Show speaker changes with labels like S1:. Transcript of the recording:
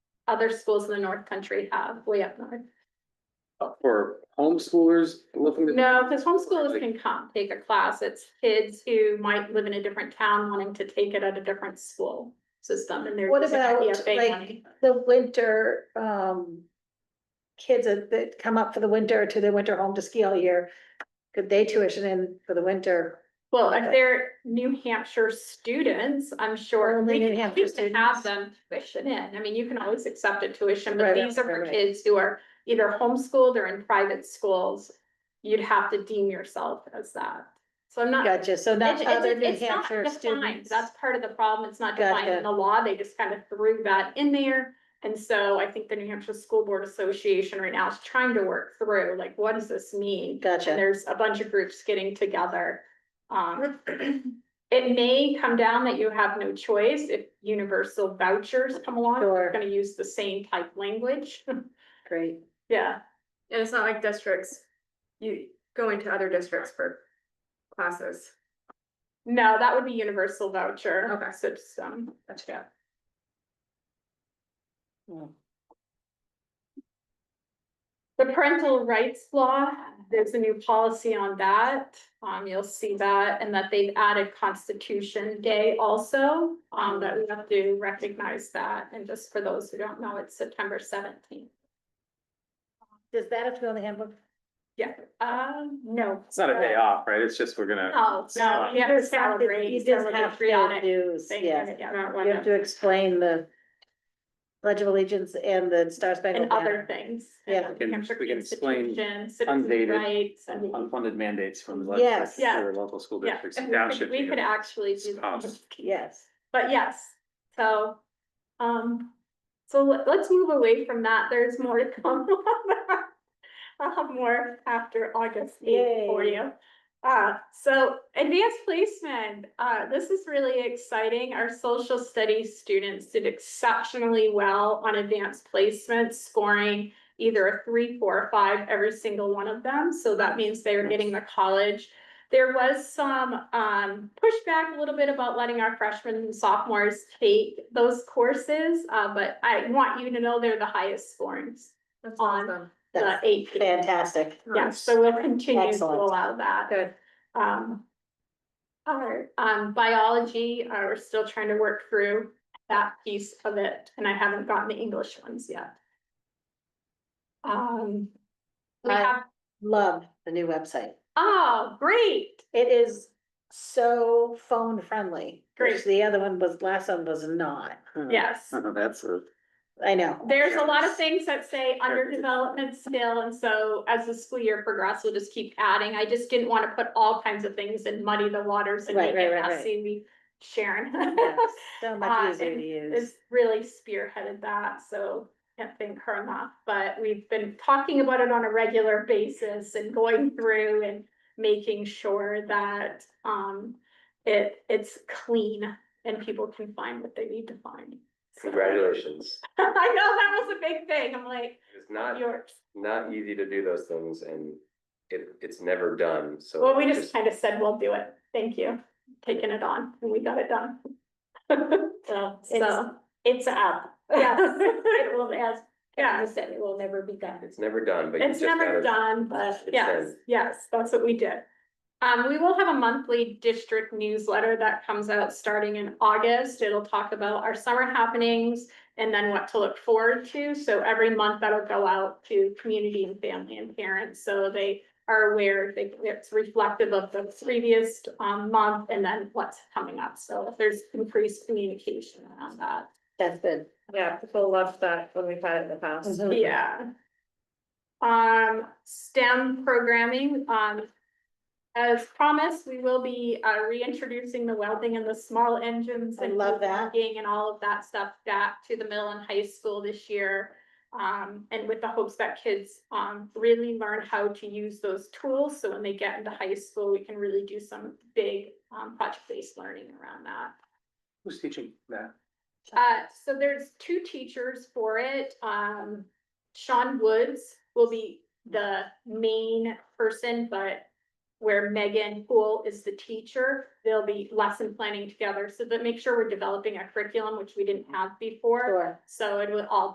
S1: other schools in the North Country have way up north.
S2: uh, for homeschoolers looking to.
S1: No, because homeschoolers can come, take a class. It's kids who might live in a different town wanting to take it at a different school system and they're.
S3: What
S1: using
S3: about,
S1: EFA
S3: like,
S1: money.
S3: the winter, um. Kids that that come up for the winter to their winter home to ski all year, could they tuition in for the winter?
S1: Well, if they're New Hampshire students, I'm sure we
S3: Only New
S1: can
S3: Hampshire
S1: choose to have
S3: students.
S1: them tuition in. I mean, you can always accept a tuition, but
S3: Right,
S1: these are
S3: right,
S1: for
S3: right.
S1: kids who are either homeschooled or in private schools. You'd have to deem yourself as that. So I'm not.
S3: Gotcha, so not
S1: It's- it's-
S3: other New
S1: it's not
S3: Hampshire
S1: defined.
S3: students.
S1: That's part of the problem. It's not defined in
S3: Gotcha.
S1: the law. They just kind of threw that in there. And so I think the New Hampshire School Board Association right now is trying to work through, like, what does this mean? And
S3: Gotcha,
S1: there's a bunch of groups getting together. Um, it may come down that you have no choice if universal vouchers come along.
S3: Sure.
S1: They're gonna use the same type language.
S3: great.
S1: Yeah,
S4: And it's not like districts, you go into other districts for classes.
S1: no, that would be universal voucher. um,
S4: Okay.
S1: System.
S4: That's
S1: Yeah.
S3: Mm.
S1: The parental rights law, there's a new policy on that. Um, you'll see that and that they've added Constitution Day also. Um, that we have to recognize that. And just for those who don't know, it's September seventeenth.
S3: Does that have to go in the handbook?
S1: Um, no.
S2: It's not a day off, right? It's just we're gonna,
S1: No, no, you Oh, have to
S3: Just have to-
S1: celebrate.
S3: You just have to
S1: celebrate
S3: do,
S1: thing,
S3: yeah,
S1: yeah,
S3: you have to explain the. Pledge of Allegiance and the Star Spangled
S1: And other
S3: Banner.
S1: things.
S3: Yeah.
S1: and
S2: We can-
S1: Hampshire
S2: we can explain
S1: Constitution, citizen
S2: undated-
S1: rights and-
S2: unfunded mandates from the
S3: Yes.
S2: legislature or local school
S1: Yeah,
S2: districts.
S1: and
S2: That
S1: we could,
S2: should
S1: we
S2: be
S1: could
S2: a-
S1: actually do,
S2: spouse.
S3: Yes,
S1: but yes, so, um, so let- let's move away from that, there's more to come. on that. I'll have more after August eighth for
S3: Yay.
S1: you. Uh, so advanced placement, uh, this is really exciting, our social studies students did exceptionally well on advanced placement scoring either a three, four, or five, every single one of them, so that means they are getting the college. There was some um pushback a little bit about letting our freshmen and sophomores take those courses, uh, but I want you to know they're the highest scorings.
S4: That's
S1: On.
S4: awesome.
S1: The
S3: that's
S1: eight,
S3: fantastic.
S1: yes, so we'll continue to
S3: Excellent.
S1: allow that.
S4: Good.
S1: Um. Our um biology, uh, we're still trying to work through that piece of it, and I haven't gotten the English ones yet. Um. We
S3: I-
S1: have,
S3: Love the new website.
S1: oh, great,
S3: It is so phone friendly.
S1: Great.
S3: Which the other one was, last one was not.
S1: yes.
S2: Oh, That's a.
S3: I know.
S1: There's a lot of things that say under development still, and so as the school year progresses, we'll just keep adding. I just didn't want to put all kinds of things and muddy the waters and make
S3: Right,
S1: it
S3: right, right, right.
S1: messy. We, Sharon.
S3: Yeah, So
S1: Uh,
S3: much easier to
S1: and
S3: use.
S1: is really spearheaded that, so can't thank her enough. But we've been talking about it on a regular basis and going through and making sure that um it it's clean and people can find what they need to find. So-
S5: Congratulations.
S1: I know, that was a big thing. I'm like,
S5: It's not,
S1: yours.
S5: not easy to do those things and it, it's never done, so.
S1: Well, we just kind of said, we'll do it. Thank you, taking it on, and we got it done.
S6: So it's,
S1: So,
S6: it's up.
S1: Yes.
S6: It will, as,
S1: yeah,
S6: as I said, it will never be done.
S5: It's never done, but. you
S1: It's
S5: just gotta-
S1: never done, but
S5: It's
S1: yes,
S5: done.
S1: yes, that's what we did. Um, we will have a monthly district newsletter that comes out starting in August. It'll talk about our summer happenings and then what to look forward to. So every month that'll go out to community and family and parents, so they are aware, they, it's reflective of the previous um month and then what's coming up. So if there's increased communication around that.
S3: That's good.
S4: Yeah, people loved that when we've had it in the past.
S3: Mhm.
S1: Yeah. Um, STEM programming, um. As promised, we will be uh reintroducing the welding and the small engines.
S3: I
S1: and
S3: love that.
S1: woodworking And all of that stuff back to the middle and high school this year. Um, and with the hopes that kids um really learn how to use those tools, so when they get into high school, we can really do some big um project-based learning around that.
S2: Who's teaching that?
S1: Uh, so there's two teachers for it. Um, Sean Woods will be the main person, but where Megan Poole is the teacher, they'll be lesson planning together. So that make sure we're developing a curriculum, which we didn't have before.
S3: Sure.
S1: So it will all